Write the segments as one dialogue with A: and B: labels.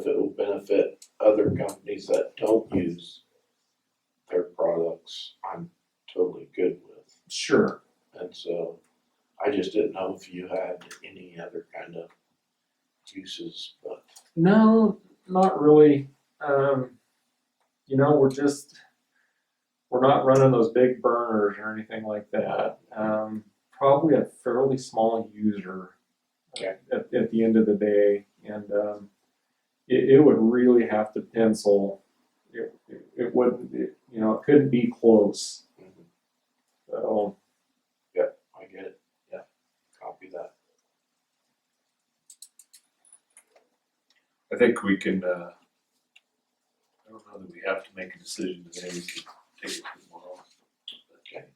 A: it'll benefit other companies that don't use their products, I'm totally good with.
B: Sure.
A: And so I just didn't know if you had any other kind of uses, but
B: No, not really. Um, you know, we're just we're not running those big burners or anything like that. Um, probably a fairly small user
A: Okay.
B: at, at the end of the day, and um, it, it would really have to pencil. It, it, it wouldn't, it, you know, it couldn't be close.
A: Mhm.
B: So,
A: I get it, yeah, copy that.
C: I think we can, uh, I don't know that we have to make a decision today, we can take it tomorrow.
A: Okay.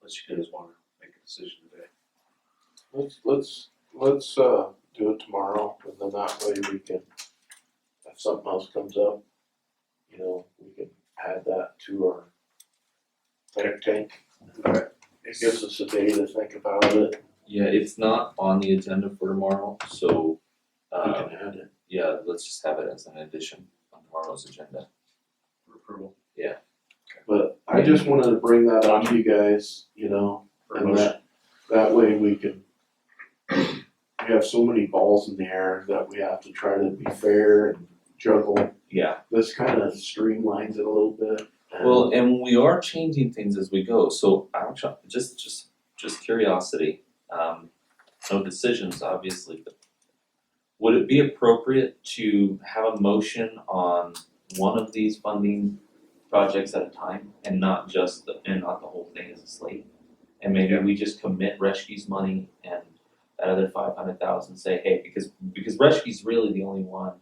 C: Unless you guys wanna make a decision today.
A: Let's, let's, let's, uh, do it tomorrow and then that way we can, if something else comes up, you know, we can add that to our think tank.
C: Alright.
A: It gives us a day to think about it,
D: Yeah, it's not on the agenda for tomorrow, so,
A: we
D: uh,
A: can add it.
D: yeah, let's just have it as an addition on tomorrow's agenda.
C: For approval.
A: But I just wanted to bring that up to you guys, you know,
C: For a
A: and
C: motion.
A: that, that way we can. We have so many balls in the air that we have to try to be fair and juggle.
D: Yeah.
A: This kind of streamlines it a little bit. and-
D: Well, and we are changing things as we go, so I'm try- just, just, just curiosity, um, no decisions, obviously, but would it be appropriate to have a motion on one of these funding projects at a time and not just, the- and not the whole thing as a slate? And maybe
C: Yeah.
D: we just commit Reshke's money and that other five hundred thousand, say, hey, because, because Reshke's really the only one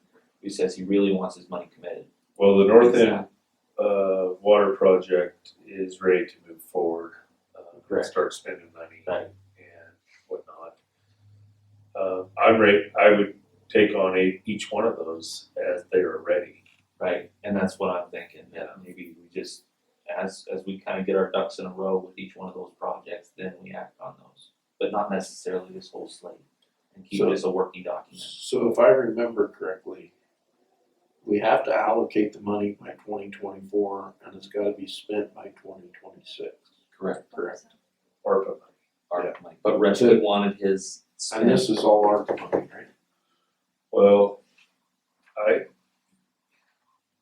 D: who says he really wants his money committed.
C: Well, the North End, uh, water project is ready to move forward. Uh, we'll
D: Correct.
C: Start spending money
D: Right.
C: and whatnot. Uh, I'm ready, I would take on a, each one of those as they are ready.
D: Right, and that's what I'm thinking, yeah, maybe we just, as, as we kind of get our ducks in a row with each one of those projects, then we act on those. But not necessarily this whole slate, and keep it
A: So-
D: as a working document.
A: So if I remember correctly, we have to allocate the money by twenty twenty-four and it's gotta be spent by twenty twenty-six.
D: Correct.
A: Correct.
C: ARPA money.
D: Our, like, but Reshke wanted his
A: And
D: spent,
A: this is all our money, right?
C: Well, I,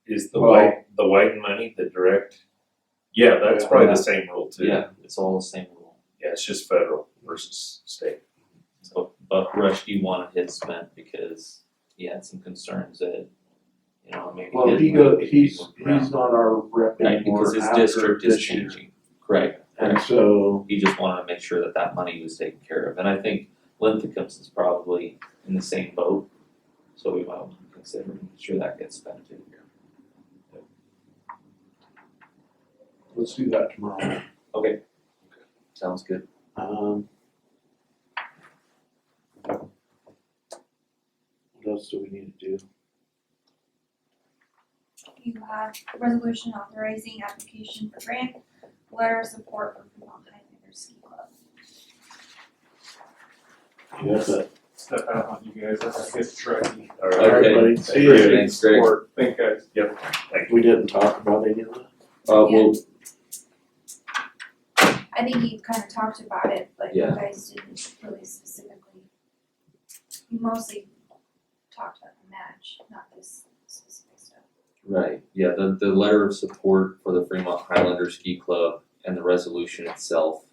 C: is the
A: Well-
C: white, the white money, the direct, yeah, that's
A: Yeah.
C: probably the same rule too.
D: yeah, it's all the same rule.
C: Yeah, it's just federal versus state.
D: So, but Reshke wanted his spent because he had some concerns that, you know, maybe.
A: Well, he
D: didn't
A: go,
D: really
A: he's,
D: work
A: he's
D: around.
A: not our rep
D: Right,
A: anymore
D: because his
A: after
D: district is
A: this year.
D: changing, correct,
A: And so,
D: he just wanted to make sure that that money was taken care of, and I think Linthicum's is probably in the same boat. So we might want to consider making sure that gets spent too.
A: let's do that tomorrow.
D: Sounds good.
A: Um. What else do we need to do?
E: You have a resolution authorizing application for grant, letter of support for Vermont Highlanders Ski Club.
A: You have that?
B: step out on you guys. That gets tricky.
C: All
A: uh, All
C: right,
A: right,
D: Okay.
A: buddy, see
D: Great,
A: you.
D: Thanks, Greg.
B: Thank guys.
A: We didn't talk about any of that?
D: Uh, well,
E: I think you kind of talked about it, but you
D: Yeah.
E: guys didn't really specifically. You mostly talked about the match, not this specific stuff.
D: right, yeah, the, the letter of support for the Fremont Highlander Ski Club and the resolution itself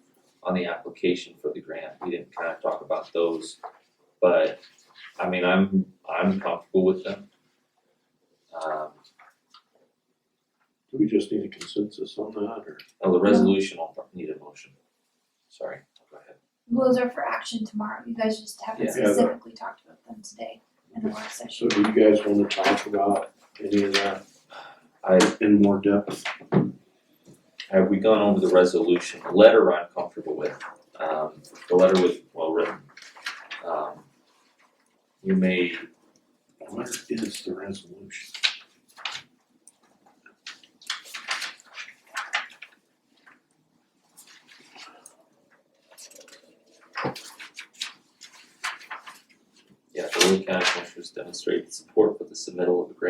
D: on the application for the grant, we didn't kind of talk about those. But, I mean, I'm, I'm comfortable with them. Um,
A: Do we just need a consensus on that or?
D: oh, the resolution, I'll need a motion. Sorry, go ahead.
E: Those are for action tomorrow, you guys just haven't
D: Yeah.
A: Yeah, that-
E: specifically talked about them today in the work session.
A: So do you guys wanna talk about any of that
D: I,
A: in more depth?
D: Have we gone over the resolution? The letter I'm comfortable with. Um, the letter was well written. Um, you may,
A: What is the resolution?
D: yeah, the Lake County Commissioners demonstrated support for the submittal of a grant